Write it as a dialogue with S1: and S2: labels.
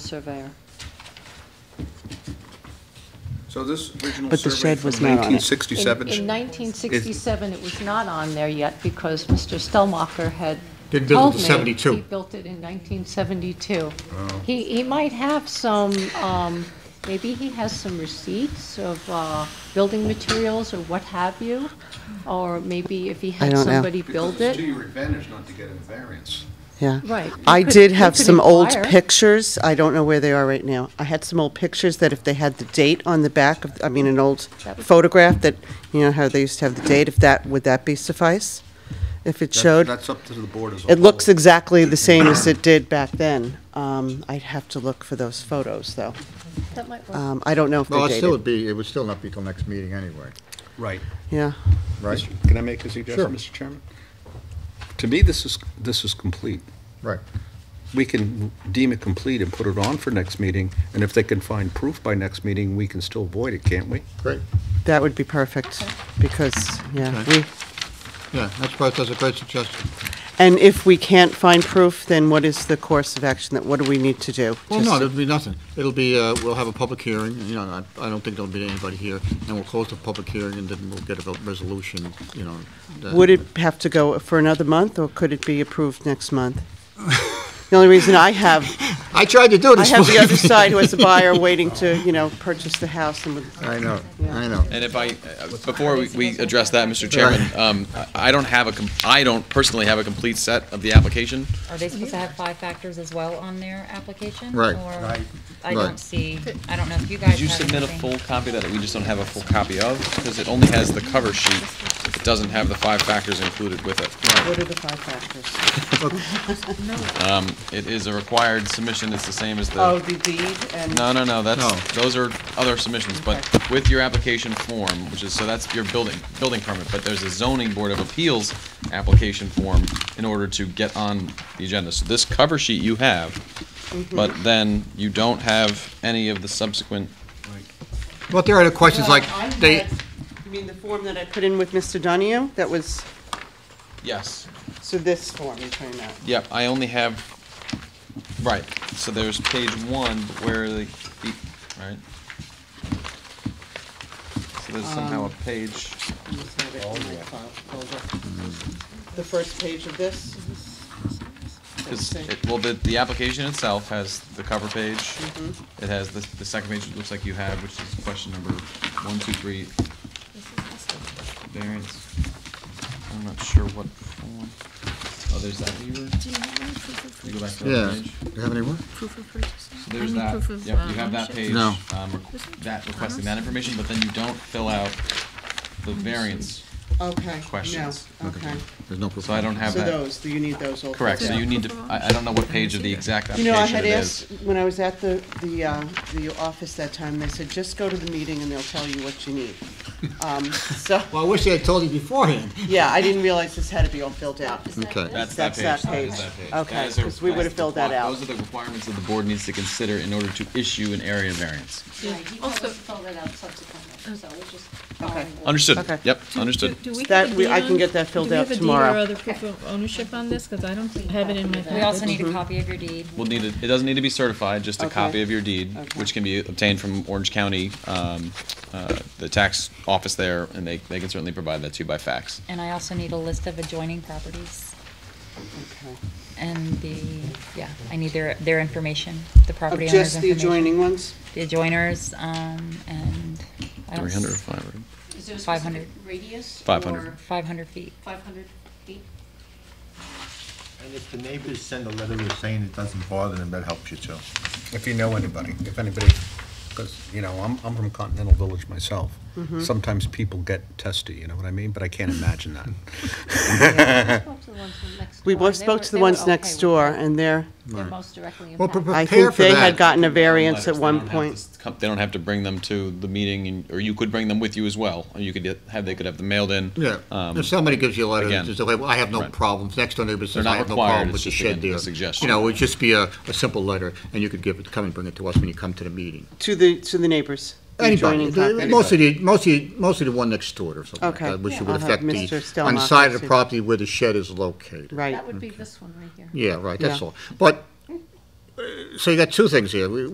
S1: surveyor.
S2: So this original
S3: But the
S2: survey
S3: shed was
S2: from
S3: not on it.
S2: nineteen
S1: In-
S2: sixty-seven.
S1: In 1967, it was not on there yet because Mr. Stellmacher had
S4: Didn't build
S1: told
S4: it till
S1: me.
S4: 72.
S1: He built it in 1972. He, he might have some, um, maybe he has some receipts of uh, building materials or what have you, or maybe if he had
S3: don't know.
S1: somebody build
S2: Because it's to
S1: it.
S2: your advantage not to get a variance.
S3: Yeah.
S1: Right. You
S3: I
S1: could-
S3: did
S1: you
S3: have
S1: could
S3: some old
S1: inquire.
S3: pictures. I don't know where they are right now. I had some old pictures that if they had the date on the back of, I mean, an old
S1: That would-
S3: photograph that, you know, how they used to have the date, if that, would that be suffice? If it
S2: That's-
S3: showed,
S2: That's up to the board as a whole.
S3: it looks exactly the same as it did back then. Um, I'd have to look for those photos, though.
S1: That might work.
S3: Um, I don't know if
S4: Well,
S3: they're
S4: it still
S3: dated.
S4: would be, it would still not be till next meeting anyway,
S2: Right.
S3: Yeah.
S4: right?
S2: Can I make a suggestion,
S4: Sure.
S2: Mr. Chairman? To me, this is, this is complete.
S4: Right.
S2: We can deem it complete and put it on for next meeting, and if they can find proof by next meeting, we can still void it, can't we?
S4: Great.
S3: That would be perfect, because, yeah,
S4: Okay.
S3: we,
S4: Yeah, that's right, that's a great suggestion.
S3: and if we can't find proof, then what is the course of action, that, what do we need to do?
S4: Well,
S3: Just
S4: no,
S3: to-
S4: there'll be nothing. It'll be, uh, we'll have a public hearing, you know, I- I don't think there'll be anybody here, and we'll close the public hearing, and then we'll get a resolution, you know. that-
S3: Would it have to go for another month, or could it be approved next month? The only reason I have,
S4: I tried to do
S3: I
S4: this.
S3: have the other
S4: morning.
S3: side who has a buyer waiting to, you know, purchase the house and would
S4: I know, I know.
S5: And if I, uh, before we- we address that, Mr. Chairman, um, I I don't have a, com- I don't personally have a complete set of the application.
S6: Are they supposed to have five factors as well on their application?
S4: Right.
S6: Or, I
S4: Right.
S6: don't see, I don't know if you guys have.
S5: Did you submit a
S6: anything.
S5: full copy of that we just don't have a full copy of? Because it only has the cover sheet. It doesn't have the five factors included with it.
S3: what are the five factors?
S5: It is a required submission. It's the same as
S3: Oh,
S5: the,
S3: the deed and,
S5: no, no, no, that's,
S4: No.
S5: those are other submissions. But with your application form, which is, so that's your building, building permit. But there's a zoning board of appeals application form in order to get on the agenda. So this cover sheet you have but then you don't have any of the subsequent.
S4: Well, there are the questions
S3: Well, I
S4: like, they,
S3: had, you mean the form that I put in with Mr. Donahue? That was,
S5: Yes.
S3: so this form you're talking about?
S5: Yep, I only have, right, so there's page one where the, the- right? So there's somehow a page,
S3: You just have it
S5: Oh,
S3: in the file folder. The first page of this?
S5: is, it- well, the, the application itself has the cover page. It has the, the second page, it looks like you have, which is question number one, two, three, variance. I'm not sure what form. Oh, there's that here. You go back to that
S4: yeah,
S5: page.
S4: do you have any more?
S7: Proof of purchase.
S5: So there's that,
S7: uh,
S5: yep, you have that page.
S4: No.
S5: um, requ- That, requesting
S7: Uh-huh.
S5: that information, but then you don't fill out the variance,
S3: Okay, no,
S5: questions.
S3: okay.
S4: There's no proof.
S5: so I don't have
S3: So
S5: that.
S3: those, do you need those all?
S5: Correct, so
S3: filled out?
S5: you need to, I, I don't know what page of the exact
S3: You know, I
S5: application
S3: had
S5: it
S3: asked,
S5: is.
S3: when I was at the, the, uh, the office that time, they said, just go to the meeting and they'll tell you what you need. Um, so,
S4: Well, I wish they had told you beforehand.
S3: yeah, I didn't realize this had to be all filled out.
S4: Okay,
S5: That's that
S3: That's that
S5: page, that is
S3: page.
S5: that page.
S3: Okay,
S5: That is a
S3: 'cause we would've
S5: request.
S3: filled that out.
S5: Those are the requirements that the board needs to consider in order to issue an area variance.
S1: Yeah, he told us to
S7: Also-
S1: fill that out subsequently, so we're just
S3: Okay.
S1: following.
S5: Understood,
S3: Okay.
S5: yep, understood.
S7: Do we
S3: That
S7: have a
S3: we-
S7: deed
S3: I can
S7: on-
S3: get that filled out
S7: Do we
S3: tomorrow.
S7: have a deed or other proof of ownership on this? Because I don't have it in my
S1: We
S7: packet.
S6: We also need
S3: Mm-hmm.
S6: a copy of your deed.
S5: We'll need, it it doesn't need to be certified, just a
S3: Okay.
S5: copy of your deed,
S3: Okay.
S5: which can be obtained from Orange County, um, uh, the tax office there, and they, they can certainly provide that to you by fax.
S6: And I also need a list of adjoining properties
S3: Okay.
S6: and the, yeah, I need their, their information, the
S3: Of
S6: property owner's
S3: just the
S6: information.
S3: adjoining ones?
S6: The adjoiners, um, and. I don't
S5: Three
S6: s-
S5: hundred or five hundred?
S1: Is there a
S6: 500.
S1: specific radius?
S5: 500.
S1: or
S6: 500 feet.
S1: 500 feet?
S8: And if the neighbors send a letter saying it doesn't bother them, that helps you too.
S2: If you know anybody, if anybody, because, you know, I'm, I'm from Continental Village myself.
S3: Mm-hmm.
S2: Sometimes people get testy, you know what I mean? But I can't imagine that.
S3: We both spoke to the ones next door and they're,
S1: They're most directly
S4: Well,
S1: impacted.
S3: I
S4: Prepare
S3: think
S4: for
S3: they had
S4: that.
S3: gotten a variance
S5: Letters,
S3: at
S5: they
S3: one
S5: don't have
S3: point.
S5: to come- They don't have to bring them to the meeting, and- or you could bring them with you as well, or you could get- have, they could have them mailed in.
S4: yeah.
S5: Um,
S4: If somebody gives you a letter,
S5: again,
S4: that says, "Okay, well, I have no
S5: right.
S4: problems, next door neighbor
S5: They're
S4: says,
S5: not
S4: I have no
S5: required,
S4: problem
S5: it's
S4: with the
S5: just,
S4: shed
S5: again, a
S4: there.
S5: suggestion.
S4: You know, it would just be a, a simple letter, and you could give it, come and bring it to us when you come to the meeting.
S3: To the, to the neighbors. the
S4: Anybody,
S3: adjoining property.
S4: The- mostly, the- mostly, mostly the one next door or something like
S3: Okay.
S4: that, which
S3: Yeah.
S4: would
S3: I'll have
S4: affect
S3: Mr.
S4: the, on
S3: Stelmach
S4: the side of
S3: see.
S4: the property where the shed is located.
S3: Right.
S1: That would be this one right here.
S4: Yeah, right, that's
S3: Yeah.
S4: all. But uh, so you got two things here. We-